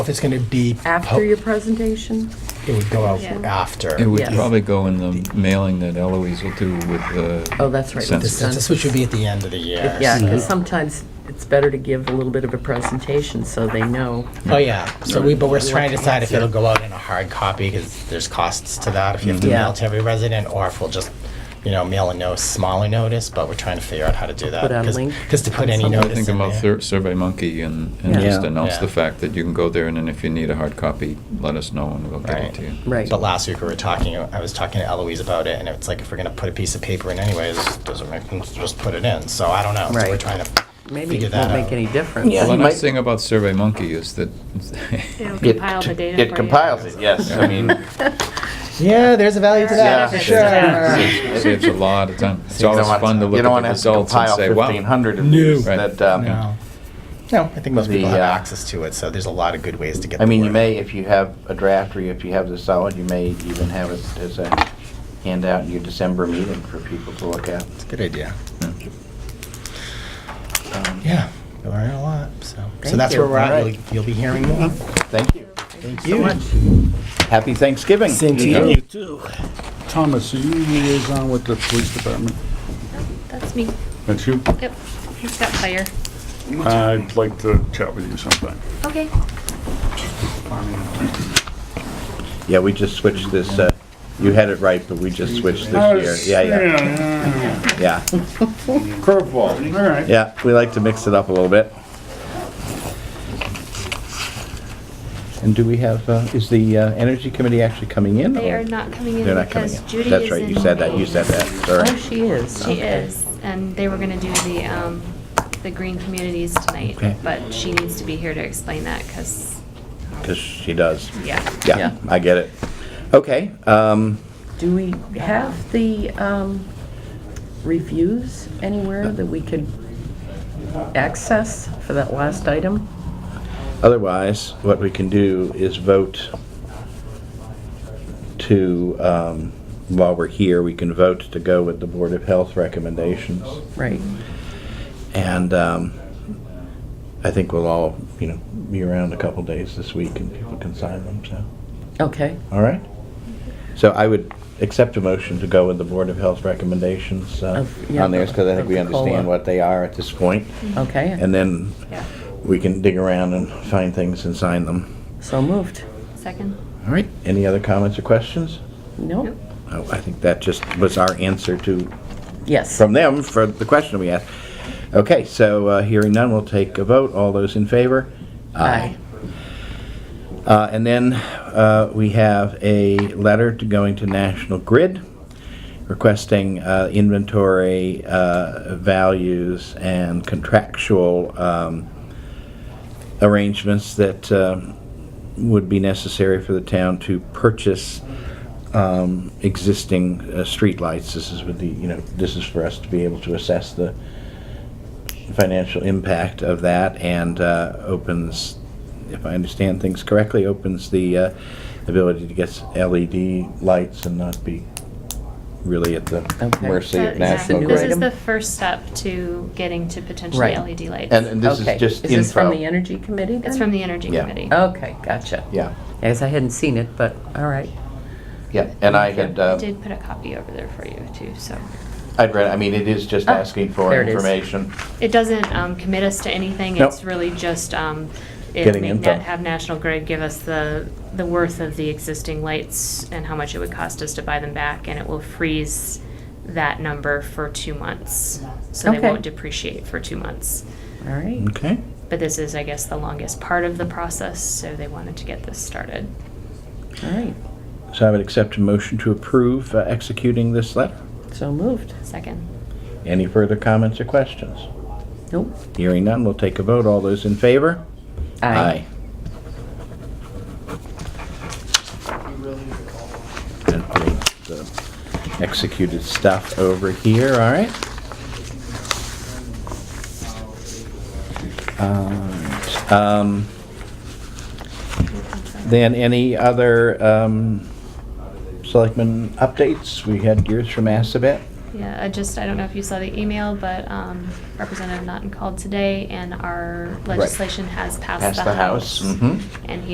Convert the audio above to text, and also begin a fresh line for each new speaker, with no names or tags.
If it's going to be,
After your presentation?
it would go out
Yeah.
after.
It would
Yes.
probably go in the mailing that Eloise will do with the.
Oh, that's right, with the
census.
This, this should be at the end of the year.
Yeah, because sometimes it's better to give a little bit of a presentation so they know.
Oh, yeah. So we, but we're trying to decide if it'll go out in a hard copy because there's costs to that if you have to
Yeah.
mail to every resident or if we'll just, you know, mail a no smaller notice, but we're trying to figure out how to do that.
Put out a link
Because to put
on
any
something.
notice
I think
in
about
there-
Sur- Survey Monkey and, and
Yeah.
just
Yeah.
announce
Oh, Yeah.
the fact that you can go there and then if you need a hard copy, let us know and we'll get
Right.
it to you.
Right.
But last week we were talking, I was talking to Eloise about it, and it's like, if we're gonna put a piece of paper in anyways, doesn't make sense to just put it in, so I don't know, so we're
Right.
trying to
Maybe
figure
it
that
won't
out.
make any difference.
Yeah.
Well,
you
the
might-
nice thing about Survey Monkey is that
It'll
It-
compile the data. for
It
you.
compiles it, yes. I mean,
Yeah, there's a value to
Yeah.
that, for
Yeah.
sure.
it saves a lot of time. It's
you don't
always
wanna-
fun to
you
look
don't
at
wanna
the
have to
results and
compile
say, wow.
1,500 of these
Right.
that, um,
No, no, I think most people
The,
have
uh,
access to it, so there's a lot of good ways to get the
I
word.
mean, you may, if you have a draft or if you have this solid, you may even have it as a handout in your December meeting for people to look at.
It's a good idea.
Hmm. Um,
Yeah, we learn a lot, so. So
Thank
that's
you.
where we're at,
Alright.
you'll, you'll be hearing more.
Thank you.
Thank you.
Happy Thanksgiving.
Same to
Yeah.
you.
You too. Thomas, are you liaison with the police department?
That's me.
That's you?
Yep. He's got fire.
I'd like to chat with you sometime.
Okay.
Yeah, we just switched this, uh, you had it right, but we just switched this year. Yeah,
yeah.
yeah, yeah.
Curveball, all right.
Yeah, we like to mix it up a little bit. And do we have, uh, is the uh, Energy Committee actually coming in?
They
or-
are not coming in
They're not coming
because
in.
Judy
That's
is
right,
in.
you said that, you said that,
Oh,
sorry.
she is.
She is, and they were gonna do the, um, the green communities tonight,
Okay.
but she needs to be here to explain that, cause, Oh.
Because she does.
yeah.
Yeah,
Yeah.
I get it. Okay, um,
Do we have the um, reviews anywhere that we could access for that last item?
otherwise, what we can do is vote to, um, while we're here, we can vote to go with the Board of Health recommendations.
Right.
And um, I think we'll all, you know, be around a couple days this week and people can sign them, so,
Okay.
all right? So I would accept a motion to go with the Board of Health recommendations uh,
Of- yeah,
on theirs, because I think
of
we
the COLA.
understand what they are at this point.
Mm-hmm.
Okay.
And then
Yeah.
we can dig around and find things and sign them.
So moved.
Second.
All right, any other comments or questions?
No?
Nope.
Oh, I think that just was our answer to,
Yes.
from them for the question we asked. Okay, so uh, hearing none, we'll take a vote. All those in favor?
Aye.
Uh, And then uh, we have a letter to going to National Grid requesting uh, inventory uh, values and contractual um, arrangements that um, would be necessary for the town to purchase um, existing uh, streetlights. This is with the, you know, this is for us to be able to assess the financial impact of that and uh, opens, if I understand things correctly, opens the uh, ability to get s- LED lights and not be really at the
Okay.
mercy
So,
of
yeah,
national
new
This
grid.
is
item?
the first step to getting to potentially
Right.
LED lights.
And and this is
Okay.
just
Is this from the
info.
Energy Committee
It's
then?
from the Energy
Yeah.
Committee.
Okay, gotcha.
Yeah,
I guess I hadn't seen it, but, all right.
yeah, and I had,
I
uh,
did put a copy over there for you too, so.
I'd read, I mean, it is just
Oh,
asking for
there it is.
information.
It doesn't um, commit us to anything.
Nope.
It's really just um, it
Getting
may
info.
not have National Grid give us the the worth of the existing lights and how much it would cost us to buy them back, and it will freeze that number for two months, so they
Okay.
won't depreciate for two months.
All right.
Okay.
But this is, I guess, the longest part of the process, so they wanted to get this started.
All right.
So I would accept a motion to approve uh, executing this letter.
So moved.
Second,
Any further comments or questions?
Nope.
Hearing none, we'll take a vote. All those in favor? Aye. And put the Executed stuff over here, all right? Alright, um, Then any other um, selectmen updates? We had yours from Assabet.
yeah. I just I don't know if you saw the email, but um, Representative Notton called today, and our legislation has passed
Passed
the, mm-hmm.
Mhm.
and he